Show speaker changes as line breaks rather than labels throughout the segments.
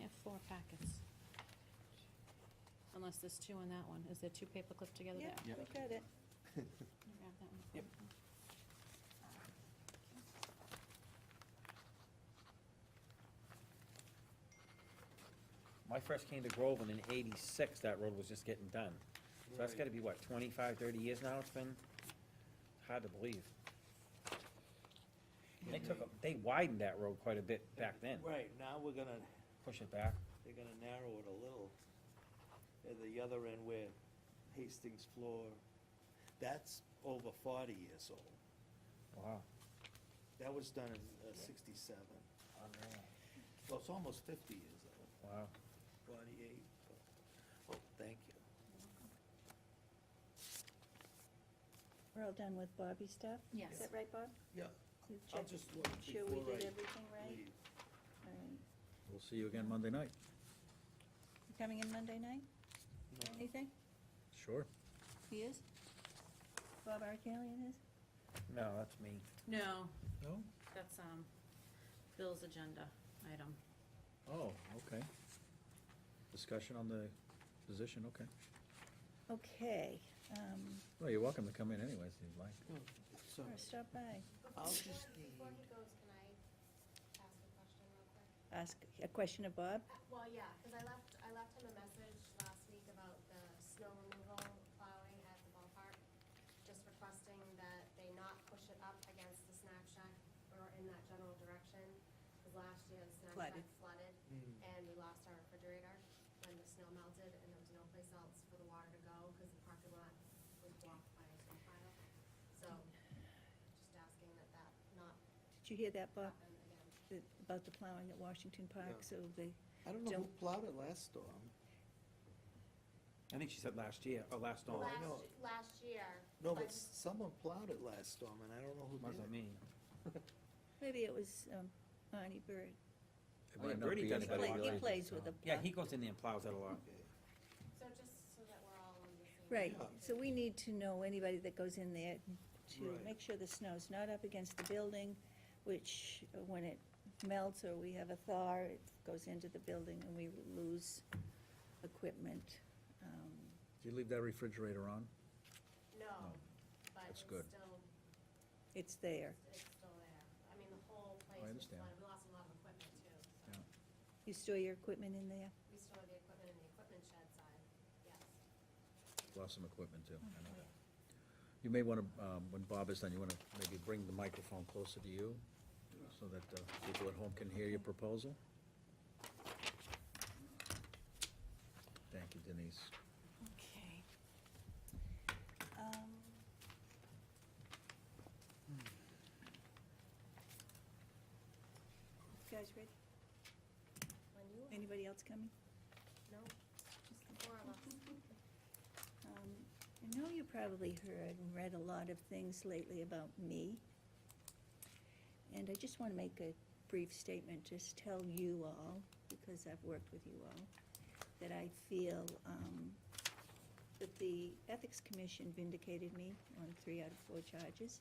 have four packets. Unless there's two on that one. Is there two paperclip together there?
Yeah, we got it.
Can you grab that one?
Yep.
When I first came to Groveland in eighty-six, that road was just getting done. So that's gotta be, what, 25, 30 years now it's been? Hard to believe. They took, a- they widened that road quite a bit back then,
Right, now we're gonna,
push it back.
they're gonna narrow it a little. At the other end where Hastings floor, that's over forty years old.
Wow.
That was done in uh, sixty-seven. Well, it's almost fifty years old,
Wow.
forty-eight. Oh, thank you.
We're all done with Bobby's stuff? Is
Yes.
that right, Bob?
Yeah,
You
I'll
checked-
just look
Sure we
before
did
I
everything right?
leave.
All right.
We'll see you again Monday night.
You coming in Monday night? Anything?
Sure.
He is?
Bob Arcalian is?
No, that's me.
No,
No?
that's, um, Bill's agenda item.
Oh, okay. Discussion on the position, okay.
Okay, um,
Well, you're welcome to come in anyways, if you'd like.
So,
or stop by,
I'll just
Before he goes, can I ask a question real quick?
ask a question of Bob?
Uh, Well, yeah, because I left, I left him a message last week about the snow removal plowing at the ballpark, just requesting that they not push it up against the snack shack or in that general direction, because last year the snack
Flooded.
shack flooded, and we lost our refrigerator when the snow melted, and there was no place else for the water to go, because the parking lot was blocked by a snow pile. So, just asking that that not
Did you hear that, Bob,
happen again.
that- about the plowing at Washington Park,
No.
so they,
I don't know who
Don't-
plowed it last storm.
I think she said last year, or last
No,
dawn.
I know.
Last, last year.
No, but
but-
s- someone plowed it last storm, and I don't know who did it.
Wasn't me.
maybe it was, um, Arnie Bird.
It
Oh,
might
yeah,
not
Brady
be
does
He
Anybody
play-
anybody
He
want to-
related.
plays with a
Yeah,
plow.
he goes in there and plows out a lot.
Okay.
So just so that we're all on the same.
Right,
Yeah.
so we need to know anybody that goes in there to
Right.
make sure the snow's not up against the building, which uh, when it melts or we have a thaw, it goes into the building and we lose equipment. Um,
Do you leave that refrigerator on?
Oh.
No, but it's
That's
still,
good.
it's
It's there.
still there. I mean, the whole place
I
was
understand.
flooded. We lost a lot of equipment too, so.
Yeah.
You store your equipment in there?
We still have the equipment in the equipment shed side, yes.
Lost some equipment too. I know that. You may want to, when Bob is done, you want to maybe bring the microphone closer to you so that uh, people at home can hear your proposal. Thank you, Denise.
Okay. Um,
Hmm.
You guys ready?
When you,
Anybody else coming?
no, just the four of us.
Um, I know you probably heard and read a lot of things lately about me. And I just want to make a brief statement, just tell you all, because I've worked with you all, that I feel um, that the Ethics Commission vindicated me on three out of four charges.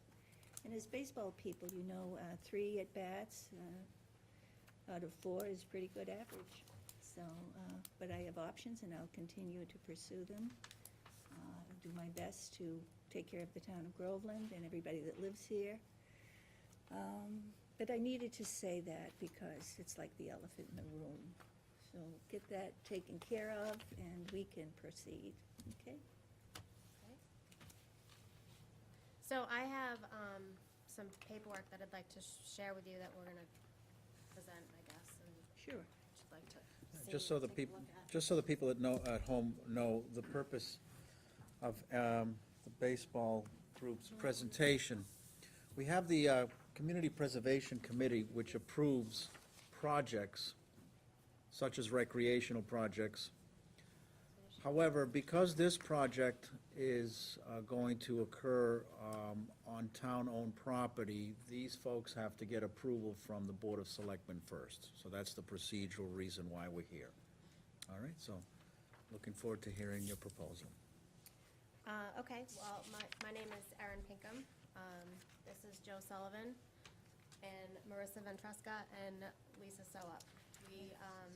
And as baseball people, you know, uh, three at-bats uh, out of four is pretty good average. So, uh, but I have options and I'll continue to pursue them uh, do my best to take care of the town of Groveland and everybody that lives here. Um, But I needed to say that because it's like the elephant in the room. So get that taken care of and we can proceed, okay?
So I have, um, some paperwork that I'd like to share with you that we're gonna present, I guess, and
Sure.
would like to
Just so the people, just so the people that know, at home know, the purpose of um, the baseball group's presentation. We have the uh, Community Preservation Committee, which approves projects such as recreational projects. However, because this project is uh, going to occur um, on town-owned property, these folks have to get approval from the Board of Selectmen first. So that's the procedural reason why we're here. All right, so looking forward to hearing your proposal.
Uh, okay, well, my, my name is Erin Pinkham. Um, this is Joe Sullivan and Marissa Ventresca and Lisa Soap. We, um,